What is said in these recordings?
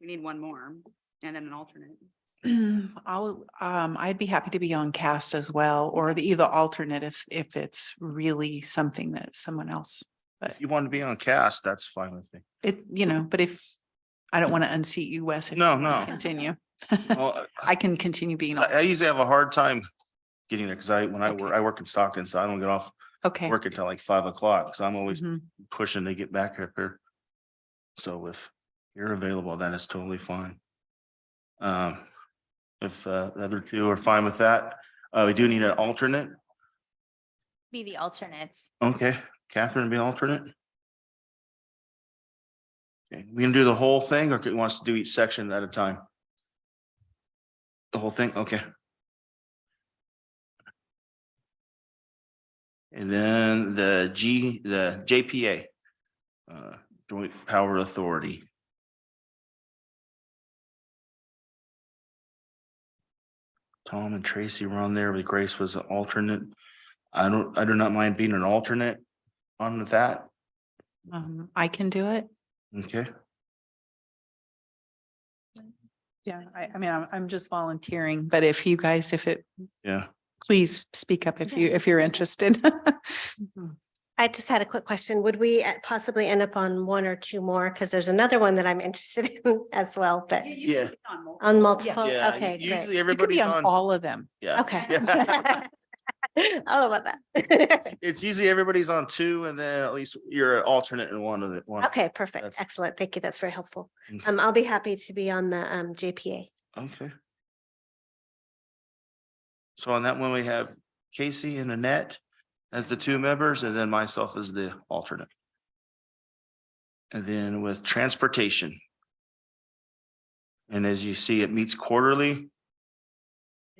we need one more and then an alternate. I'll, um, I'd be happy to be on cast as well, or the either alternate if, if it's really something that someone else. If you want to be on cast, that's fine with me. It, you know, but if, I don't want to unseat you, Wes. if you No, wanna no. Oh. Continue. Well, I can continue being, I on. I usually have a hard time getting there because I, when I Okay. work, I work in Stockton, so I don't get off okay. work until like five o'clock. So I'm always Mhm. pushing to get back up here. So if you're available, that is totally fine. Um, if uh, the other two are fine with that, uh, we do need an alternate. Be the alternate. Okay, Catherine be alternate. Okay, we gonna do the whole thing or do you want us to do each section at a time? The whole thing, okay. And then the G, the JPA. uh, Joint Power Authority. Tom and Tracy were on there, but Grace was an alternate. I don't, I do not mind being an alternate on that, Um, I can do it. okay? Yeah, I, I mean, I'm, I'm just volunteering, but if you guys, if it, Yeah, please speak up if you, if you're interested. I just had a quick question. Would we uh, possibly end up on one or two more? Because there's another one that I'm interested in as well, but You- you Uh, Yeah. should be Um, on multiple. on multiple, yeah, okay, u- usually great. You could be everybody's on on, all of them. yeah. Okay. Yeah. Oh, about that. It's usually everybody's on two and then at least you're an alternate in one of the one. Okay, perfect. That's- Excellent. Thank you. That's very helpful. Mm. Um, I'll be happy to be on the um JPA. Okay. So on that one, we have Casey and Annette as the two members and then myself as the alternate. And then with transportation. And as you see, it meets quarterly.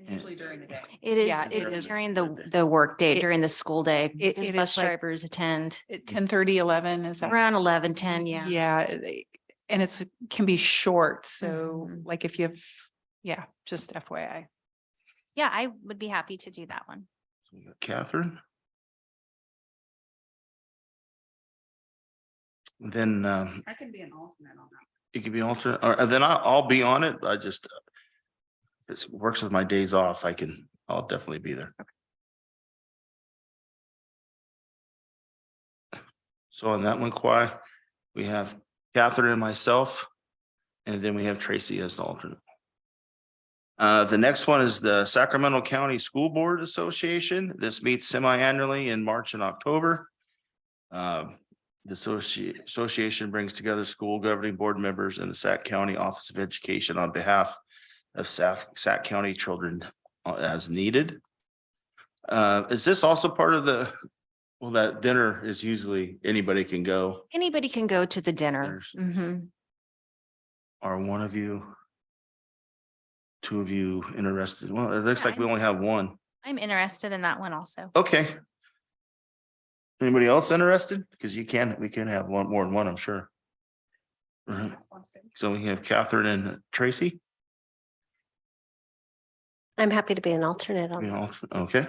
Usually during the day. It Yeah, is, it it's is. during the, the workday, It- during the school day. it- Because it is bus like- drivers attend Mm. At ten thirty, eleven, is that? around eleven, ten, yeah. Yeah, they- and it's, can be short, so Mhm. like if you have, yeah, just FYI. Yeah, I would be happy to do that one. So we got Catherine. Then um, I can be an alternate on that. it could be alternate, or then I'll, I'll be on it. I just. uh, If it works with my days off, I can, I'll definitely be there. So on that one, Kwai, we have Catherine and myself. And then we have Tracy as the alternate. Uh, the next one is the Sacramento County School Board Association. This meets semi-annually in March and October. Um, the associ- association brings together school governing board members and the Sac County Office of Education on behalf of Sac, Sac County children uh, as needed. Uh, is this also part of the, well, that dinner is usually anybody can go, Anybody can go to the dinner. Dinners. Mhm. or one of you? Two of you interested? Well, it looks Yeah, like we only have one. I'm interested in that one also. Okay. Anybody else interested? Because you can, we can have one, more than one, I'm sure. Uh-huh. Right. That's on stage. So we have Catherine and Tracy. I'm happy to be an alternate on We that. all- Okay.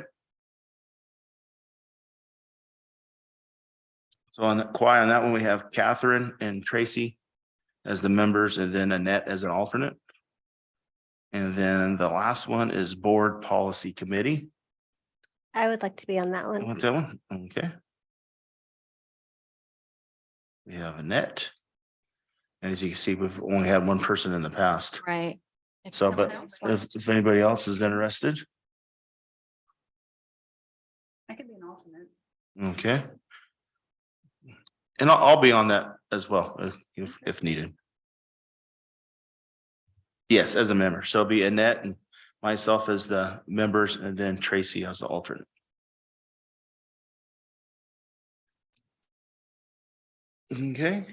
So on the quiet, on that one, we have Catherine and Tracy as the members and then Annette as an alternate. And then the last one is Board Policy Committee. I would like to be on that You one. Want that one? Okay. We have Annette. And as you can see, we've only had one person in the past. Right. If So, someone but else If, wants to- if anybody else is interested, I can be an alternate. okay. And I'll, I'll be on that as well, if- if, if needed. Yes, as a member. So it'll be Annette and myself as the members and then Tracy as the alternate. Okay.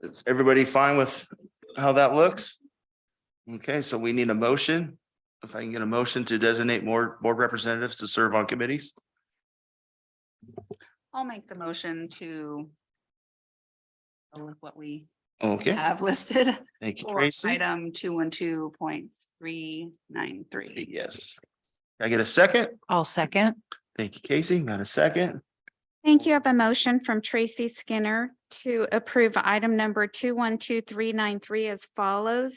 Is everybody fine with how that looks? Okay, so we need a motion. If I can get a motion to designate more board representatives to serve on committees. I'll make the motion to go with what we Okay, have listed thank you, for Tracy. item two one two point three nine three. Yes. Can I get a second? I'll second. Thank you, Casey. Got a second? Thank you. I have a motion from Tracy Skinner to approve item number two one two three nine three as follows.